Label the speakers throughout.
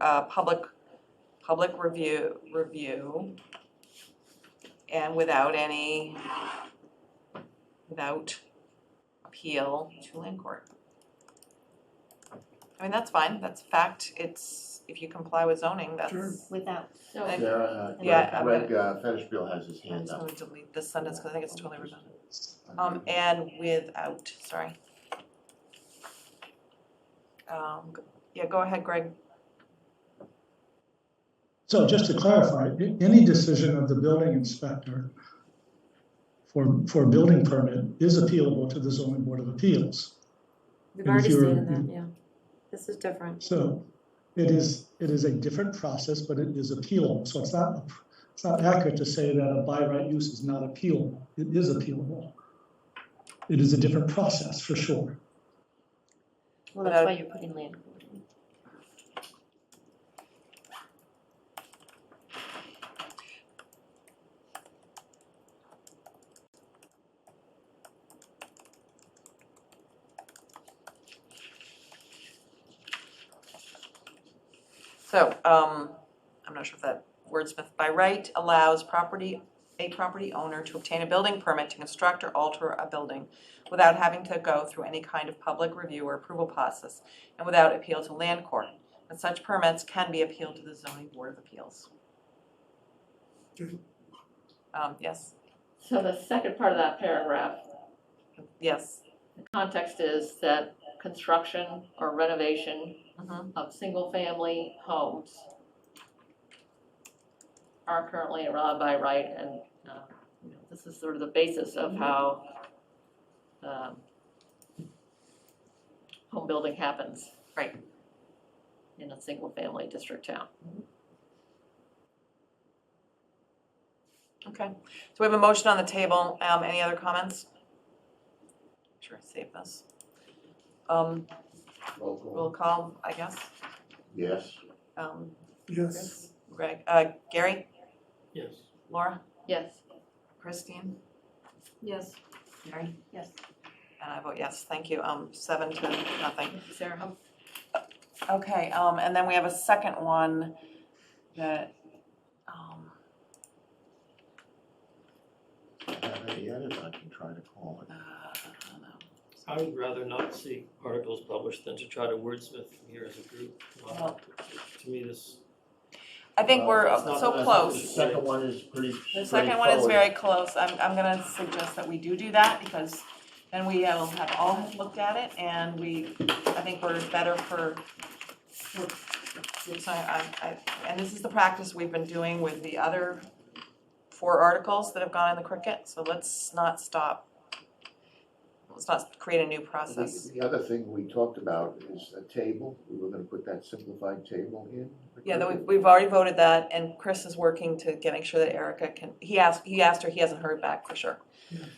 Speaker 1: uh, public, public review, review. And without any, without appeal to land court. I mean, that's fine, that's fact, it's, if you comply with zoning, that's.
Speaker 2: Sure.
Speaker 3: without,
Speaker 4: So,
Speaker 1: Thank you.
Speaker 2: Sarah, uh,
Speaker 1: Yeah, I'm
Speaker 2: Greg, Greg uh, Fetishville has his
Speaker 1: I'm
Speaker 2: hand
Speaker 1: just
Speaker 2: up.
Speaker 1: gonna delete this sentence, cause I think it's totally redundant. Um,
Speaker 2: Um,
Speaker 1: and without, sorry. Um, g- yeah, go ahead, Greg.
Speaker 5: So just to clarify, a- any decision of the building inspector for, for a building permit is appealable to the zoning board of appeals. And
Speaker 4: we've
Speaker 5: if
Speaker 4: already
Speaker 5: you're-
Speaker 4: stated that, yeah. This is different.
Speaker 5: So it is, it is a different process, but it is appealable. So it's not, it's not accurate to say that a by right use is not appealable. It is appealable. It is a different process, for sure.
Speaker 3: well, that's why you're putting land court in.
Speaker 1: So, um, I'm not sure if that wordsmith by right allows property, a property owner to obtain a building permit to construct or alter a building without having to go through any kind of public review or approval process and without appeal to land court. But such permits can be appealed to the zoning board of appeals.
Speaker 2: Good.
Speaker 1: Um, yes,
Speaker 4: So the second part of that paragraph,
Speaker 1: yes.
Speaker 4: the context is that construction or renovation
Speaker 1: Mhm.
Speaker 4: of single-family homes are currently allowed by right, and, uh, you know, this is sort of the basis of how um, home building happens.
Speaker 1: Right.
Speaker 4: In a single-family district town.
Speaker 1: Okay, so we have a motion on the table, um, any other comments? Sure, save this. Um,
Speaker 2: Roll
Speaker 1: roll
Speaker 2: call.
Speaker 1: call, I guess,
Speaker 2: Yes.
Speaker 1: um,
Speaker 2: Yes.
Speaker 1: Chris, Greg, uh, Gary,
Speaker 6: Yes.
Speaker 1: Laura,
Speaker 4: Yes.
Speaker 1: Christine,
Speaker 4: Yes.
Speaker 1: Mary,
Speaker 3: Yes.
Speaker 1: and I vote yes, thank you, um, seven to nothing.
Speaker 4: Thank you, Sarah.
Speaker 1: Okay, um, and then we have a second one that, um,
Speaker 2: I have any edits I can try to call
Speaker 1: uh,
Speaker 2: it.
Speaker 1: I don't know.
Speaker 6: I would rather not see articles published than to try to wordsmith them here as a group. Uh, To me, this,
Speaker 1: I think we're
Speaker 6: It's not-
Speaker 1: so
Speaker 6: it's-
Speaker 1: close.
Speaker 2: Uh, The second one is pretty
Speaker 1: The second one is
Speaker 2: straightforward.
Speaker 1: very close, I'm, I'm gonna suggest that we do do that, because then we will have all have looked at it, and we, I think we're better for, we're, we're sorry, I, I, and this is the practice we've been doing with the other four articles that have gone in the cricket, so let's not stop. Let's not create a new process.
Speaker 2: The the other thing we talked about is a table, we were gonna put that simplified table in.
Speaker 1: Yeah, that we've, we've already voted that, and Chris is working to get, make sure that Erica can, he asked, he asked her, he hasn't heard back for sure.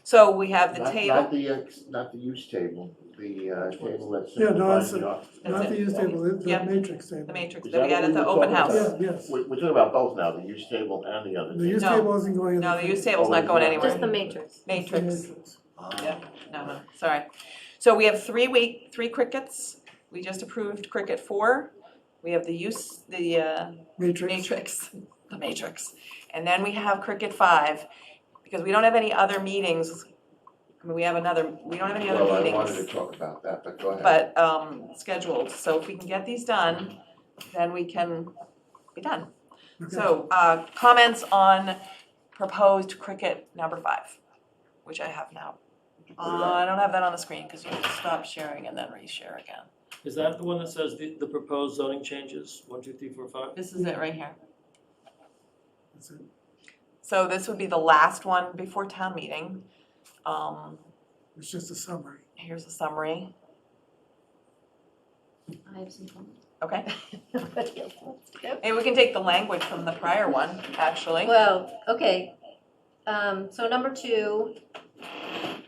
Speaker 1: So we have the
Speaker 2: Not-
Speaker 1: table.
Speaker 2: Not the, ex- not the use table, the uh, table that's
Speaker 7: Yeah, no, that's
Speaker 2: simplifies the office.
Speaker 1: That's
Speaker 7: Not the
Speaker 1: it.
Speaker 7: use table, it's
Speaker 1: Yeah.
Speaker 7: the matrix table.
Speaker 1: The matrix
Speaker 2: Is
Speaker 1: that we had
Speaker 2: that what
Speaker 1: at the
Speaker 2: we were
Speaker 1: open
Speaker 2: talking
Speaker 1: house.
Speaker 7: Yeah, yes.
Speaker 2: We're, we're talking about both now, the use table and the other
Speaker 7: The
Speaker 2: thing.
Speaker 7: use
Speaker 1: No.
Speaker 7: table isn't going in.
Speaker 1: No, the use table's
Speaker 2: Oh,
Speaker 1: not going
Speaker 2: it's
Speaker 1: anywhere.
Speaker 2: not.
Speaker 3: Just the matrix.
Speaker 7: It's the
Speaker 1: Matrix,
Speaker 7: matrix.
Speaker 2: Ah.
Speaker 1: yeah, no, no, sorry. So we have three week, three crickets. We just approved cricket four. We have the use, the uh,
Speaker 7: Matrix.
Speaker 1: matrix, the matrix. And then we have cricket five, because we don't have any other meetings. I mean, we have another, we don't have any other
Speaker 2: Well, I
Speaker 1: meetings.
Speaker 2: wanted to talk about that, but go ahead.
Speaker 1: but um scheduled, so if we can get these done, then we can be done. So uh comments on proposed cricket number five, which I have now. Uh I don't have that on the screen because you have to stop sharing and then reshare again.
Speaker 6: is that the one that says the, the proposed zoning changes, one, two, three, four, five?
Speaker 1: This is it right here.
Speaker 7: That's it.
Speaker 1: So this would be the last one before town meeting. Um
Speaker 7: It's just a summary.
Speaker 1: here's a summary,
Speaker 3: I have some comments.
Speaker 1: okay?
Speaker 3: Nobody else wants to go?
Speaker 1: And we can take the language from the prior one, actually.
Speaker 3: Well, okay, um, so number two,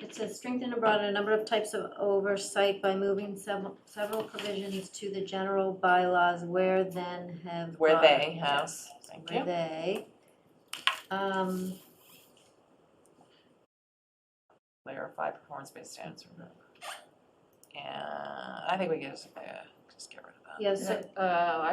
Speaker 3: it says strengthen and broaden a number of types of oversight by moving several, several provisions to the general bylaws where then have.
Speaker 1: Where they
Speaker 3: are.
Speaker 1: have, thank you.
Speaker 3: Where they, um.
Speaker 1: clarify performance-based standards. And I think we can just, uh, just get rid of that.
Speaker 3: Yes,
Speaker 4: Uh, I